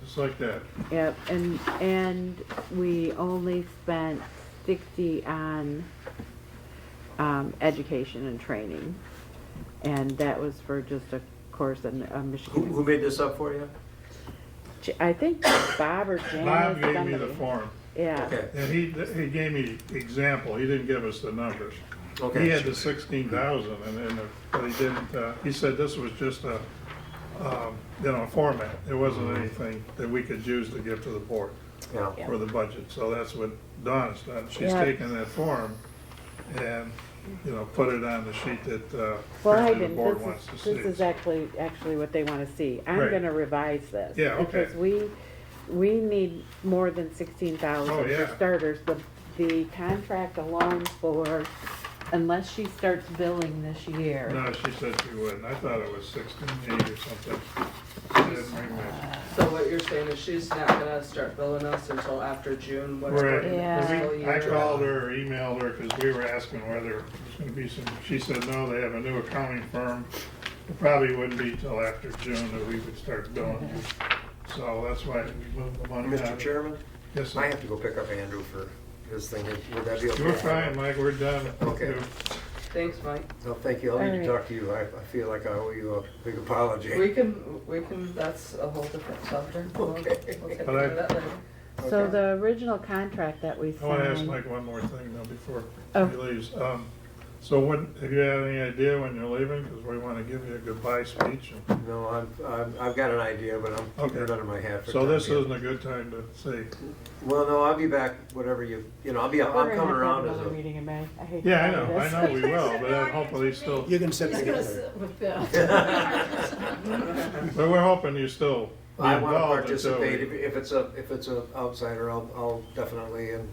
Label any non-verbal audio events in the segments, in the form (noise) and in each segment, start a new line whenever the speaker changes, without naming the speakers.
Just like that.
Yep, and, and we only spent sixty on, um, education and training. And that was for just a course in, uh,
Who, who
Michigan.
made this up for you?
J- I think Bob or Jan
Bob
or
gave me the
somebody.
form,
Yeah,
Okay,
and he, he gave me example, he didn't give us the numbers. He had
okay.
the sixteen thousand, and then, the- but he didn't, uh, he said this was just a, um, you know, a format. It wasn't anything that we could use to give to the board
Mm-hmm. Yeah.
for the budget, so that's what Dawn's done. She's
Yeah.
taken that form and, you know, put it on the sheet that, uh,
well, I
apparently the
didn't,
board
this
wants to
is,
see.
this is actually, actually what they wanna see. I'm
Right.
gonna revise this.
Yeah, okay.
Because we, we need more than sixteen
Oh,
thousand for
yeah.
starters. The, the contract alone for, unless she starts billing this year.
No, she said she wouldn't. I thought it was sixteen eight or something. I didn't bring my-
So what you're saying is she's not gonna start billing us until after June, what's
Right.
going in the
Yeah.
fiscal
I
year?
called her or emailed her because we were asking whether there's gonna be some, she said, no, they have a new accounting firm. It probably wouldn't be till after June that we would start billing. So that's why we moved the money. out.
Mr. Chairman,
Yes, sir.
I have to go pick up Andrew for his thing. Would that be okay?
You're fine, Mike. We're done.
Okay.
Thanks, Mike.
No, thank you. I'll need to
All right.
talk to you. I, I feel like I owe you a big apology.
We can, we can, that's a whole different subject. We'll-
Okay.
We'll
But
take care
I-
of that later.
So
Okay.
the original contract that we
I wanna ask
signed,
Mike one more thing though before
Oh.
he leaves. Um, so when, have you had any idea when you're leaving? Because we wanna give you a goodbye speech. and-
No, I'm, I'm, I've got an idea, but I'm keeping it
Okay.
under my hat for.
So
time
this
being.
isn't a good time to say,
Well, no, I'll be back, whatever you, you know, I'll be, I'm
We're gonna
coming
have to have
around as
another
a.
meeting in May. I hate to
yeah, I
tell you
know, I
this.
know we will, but then hopefully still,
You can sit
He's gonna
(laughs)
together.
sit
(laughs)
with Bill.
but we're hoping you still be
I wanna
involved until
participate. If,
we.
if it's a, if it's a outsider, I'll, I'll definitely, and,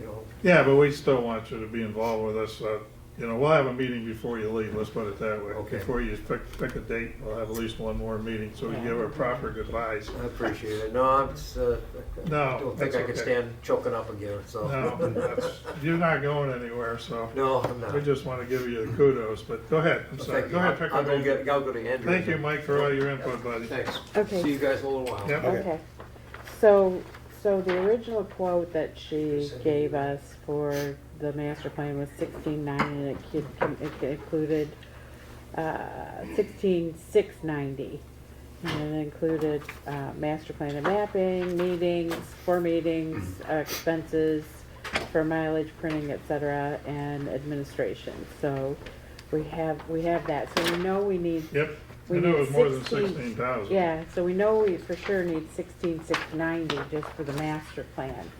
you know,
Yeah, but we still want you to be involved with us. uh, You know, we'll have a meeting before you leave, let's put it that way.
Okay.
Before you pick, pick a date, we'll have at least one more meeting so we
Yeah.
give our proper goodbyes.
I appreciate it. No, I'm just, uh, I
No,
don't think I
that's
could
okay.
stand choking up again, so.
No, that's- you're not going anywhere, so
(laughs) No, I'm not.
we just want to give you the kudos, but go ahead, I'm
Well,
sorry.
thank
Go
you.
ahead, pick
I'll
a
go
date.
get, I'll go to Andrew.
Thank you, Mike, for all your input, buddy.
Thanks.
Okay.
See you guys in a little while.
Yep.
Okay, so, so the original quote that she gave us for the master plan was sixteen nine, and it kid- it included, uh, sixteen six ninety. And it included, uh, master plan and mapping, meetings, four meetings, uh, expenses for mileage, printing, et cetera, and administration, so we have, we have that, so we know we need
Yep, I
We
knew it
need
was more than
16.
sixteen thousand.
yeah, so we know we for sure need sixteen six ninety just for the master plan.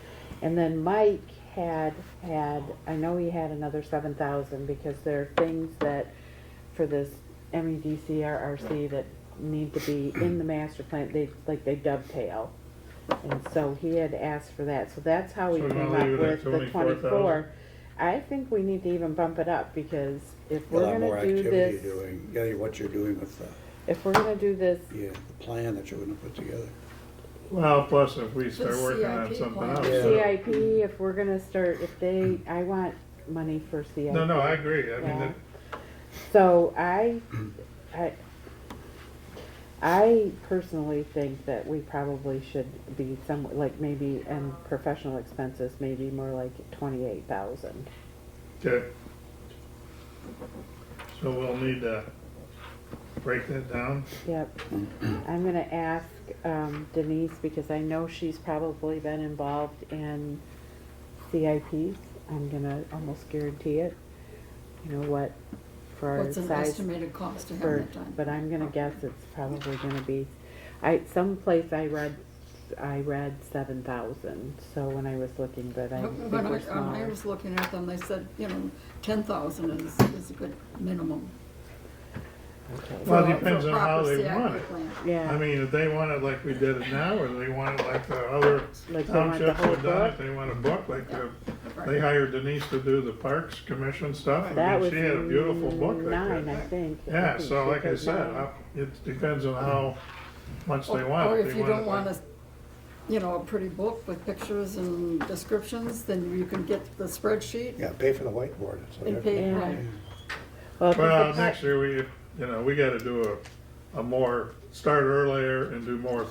And then Mike had, had, I know he had another seven thousand because there are things that, for this E MEDCRRC that need to be in the master plan, they, like they dovetail. And so he had asked for that, so that's how we
So you wanna
came
leave it at
up with the
24,000?
twenty-four. I think we need to even bump it up because if
A
we're
lot more
gonna do
activity
this,
doing, yeah, what you're doing with the,
if we're gonna do this
yeah, the plan that you're gonna put together.
Well, plus if we start
The
working on
CIP
something
plan.
else.
Yeah.
so-
CIP, if we're gonna start, if they, I want money for CIP.
No, no, I agree, I mean,
Yeah.
that-
So I, I, I personally think that we probably should be some, like maybe, and professional expenses, maybe more like twenty-eight thousand.
Okay. So we'll need to break that down.
Yep, I'm gonna ask um, Denise, because I know she's probably been involved in CIPs. I'm gonna almost guarantee it, you know, what, for our
What's an
size.
estimated cost to have
for-
that done? Oh.
But I'm gonna guess it's probably gonna be, I, someplace I read, I read seven thousand, so when I was looking, but I think
When I,
we're
when I
smaller.
was looking at them, they said, you know, ten thousand is, is a good minimum.
Okay.
Well, it
for a- for a
depends on how
proper
they
CIP
want it.
plan.
Yeah.
I mean, if they want it like we did it now, or they want it like the other
Like they want the
townships
whole
have done
book?
it, they want a book, like the,
Right.
they hired Denise to do the Parks Commission stuff. I
That
mean,
was
she had a beautiful book like
nine, I
that.
think. I
Yeah,
think
so
she
like I
did
said,
nine.
I- it depends on how much they want.
Or
They
Oh, if you don't
it
want
like-
a, you know, a pretty book with pictures and descriptions, then you can get the spreadsheet
Yeah, pay for the whiteboard. so
and
they're-
pay,
Yeah.
right.
Well, if it's a
Well,
cut-
next year, we, you know, we gotta do a, a more, start earlier and do more